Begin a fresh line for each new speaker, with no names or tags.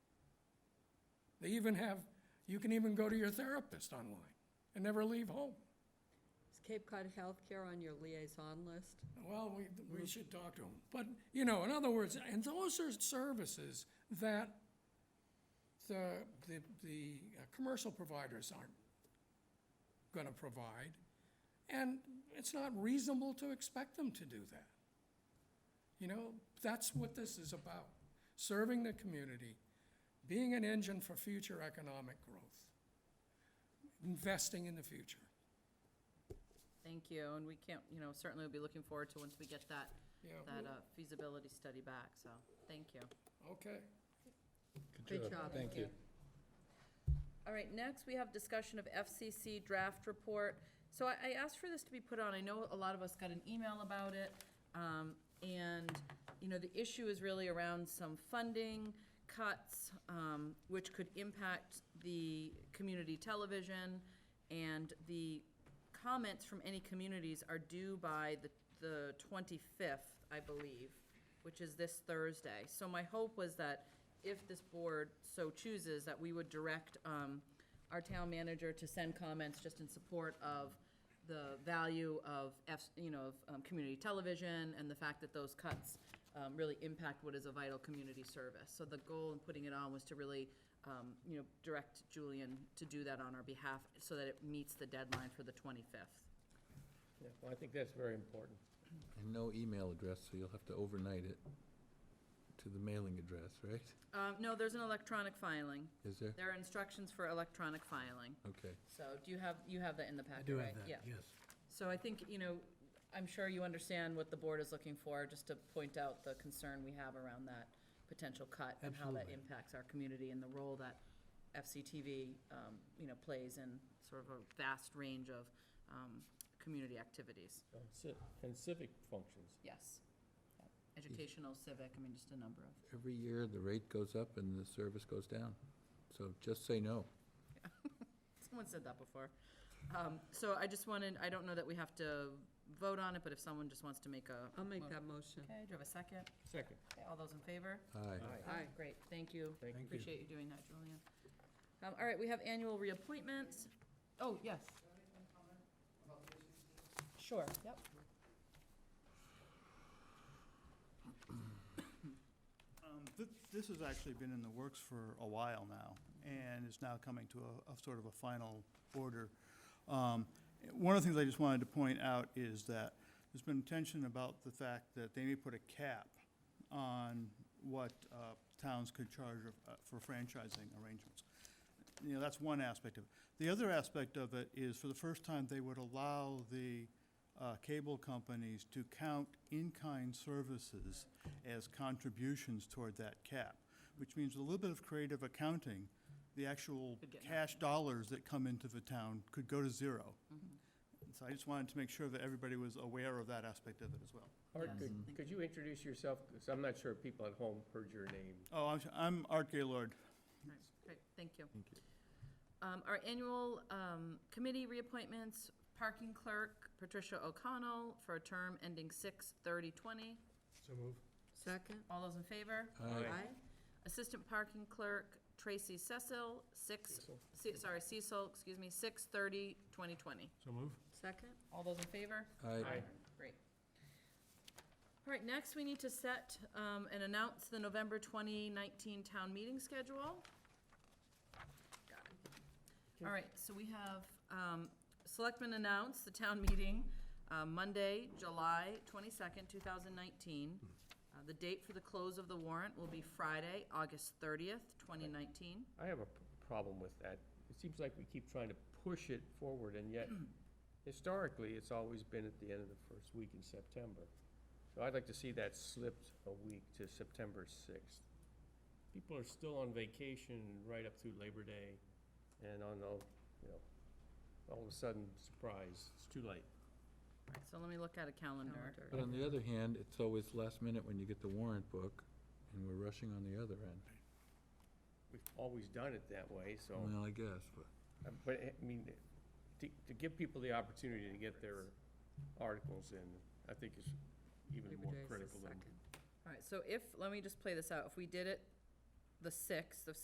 They even have, you can even go to your therapist online and never leave home.
Is Cape Cod Healthcare on your liaison list?
Well, we,
Mm-hmm.
we should talk to them. But, you know, in other words, and those are services that the, the, the uh, commercial providers aren't going to provide. And it's not reasonable to expect them to do that. You know, that's what this is about, serving the community, being an engine for future economic growth, investing in the future.
Thank you, and we can't, you know, certainly we'll be looking forward to once we get that,
Yeah.
that uh, feasibility study back, so, thank you.
Okay.
Good job.
Thank you.
All right, next, we have discussion of FCC draft report. So I, I asked for this to be put on, I know a lot of us got an email about it, um, and, you know, the issue is really around some funding cuts, um, which could impact the community television, and the comments from any communities are due by the, the 25th, I believe, which is this Thursday. So my hope was that if this board so chooses, that we would direct um, our town manager to send comments just in support of the value of, F- you know, of um, community television and the fact that those cuts um, really impact what is a vital community service. So the goal in putting it on was to really, um, you know, direct Julian to do that on our behalf so that it meets the deadline for the 25th.
Yeah, well, I think that's very important.
And no email address, so you'll have to overnight it to the mailing address, right?
Um, No, there's an electronic filing.
Is there?
There are instructions for electronic filing.
Okay.
So do you have, you have that in the packet, right? Yeah.
yes.
So I think, you know, I'm sure you understand what the board is looking for, just to point out the concern we have around that potential cut and how that
Absolutely.
impacts our community and the role that FCTV, um, you know, plays in sort of a vast range of um, community activities.
Um, ci- And civic functions.
Yes. Educational, civic, I mean, just a number of.
Every year, the rate goes up and the service goes down. So just say no.
Someone said that before. Um, So I just wanted, I don't know that we have to vote on it, but if someone just wants to make a.
I'll make that motion.
Okay, do you have a second?
Second.
Okay, All those in favor?
Aye.
Aye.
Great, thank you.
Thank you.
Appreciate you doing that, Julian. Um, All right, we have annual reappointments. Oh, yes. Sure, yep.
Um, th- This has actually been in the works for a while now, and is now coming to a, a sort of a final order. Um, One of the things I just wanted to point out is that there's been tension about the fact that they may put a cap on what uh, towns could charge uh, for franchising arrangements. You know, that's one aspect of it. The other aspect of it is, for the first time, they would allow the uh, cable companies to count in-kind services as contributions toward that cap, which means with a little bit of creative accounting, the actual
Could get
cash dollars that come into the town could go to zero.
Mm-hmm.
So I just wanted to make sure that everybody was aware of that aspect of it as well.
Art,
Yes.
could, could you introduce yourself? Because I'm not sure people at home heard your name.
Oh, I'm- I'm Art Gaylord.
All right, Great, thank you. Thank you. Our annual um, committee reappointments, parking clerk Patricia O'Connell for a term ending 6/30/20.
So move.
Second?
All those in favor?
Aye.
Assistant Parking Clerk Tracy Cecil, six, Ce- sorry, Cecil, excuse me, 6/30/2020.
So move.
Second?
All those in favor?
Aye.
Great. All right, next, we need to set um, and announce the November 2019 town meeting schedule. Got it. All right, so we have, um, Selectmen announce the town meeting uh, Monday, July 22nd, 2019. Uh, The date for the close of the warrant will be Friday, August 30th, 2019.
I have a p- problem with that. It seems like we keep trying to push it forward, and yet historically, it's always been at the end of the first week in September. So I'd like to see that slipped a week to September 6th. People are still on vacation right up through Labor Day, and on the, you know, all of a sudden, surprise, it's too late.
All right, So let me look at a calendar.
Calendar.
But on the other hand, it's always last minute when you get the warrant book, and we're rushing on the other end.
We've always done it that way, so.
Well, I guess, but.
Uh, But, I mean, to, to give people the opportunity to get their articles in, I think is even
Labor
more
Day is the
critical than
second.
All right, so if, let me just play this out. If we did it the 6th of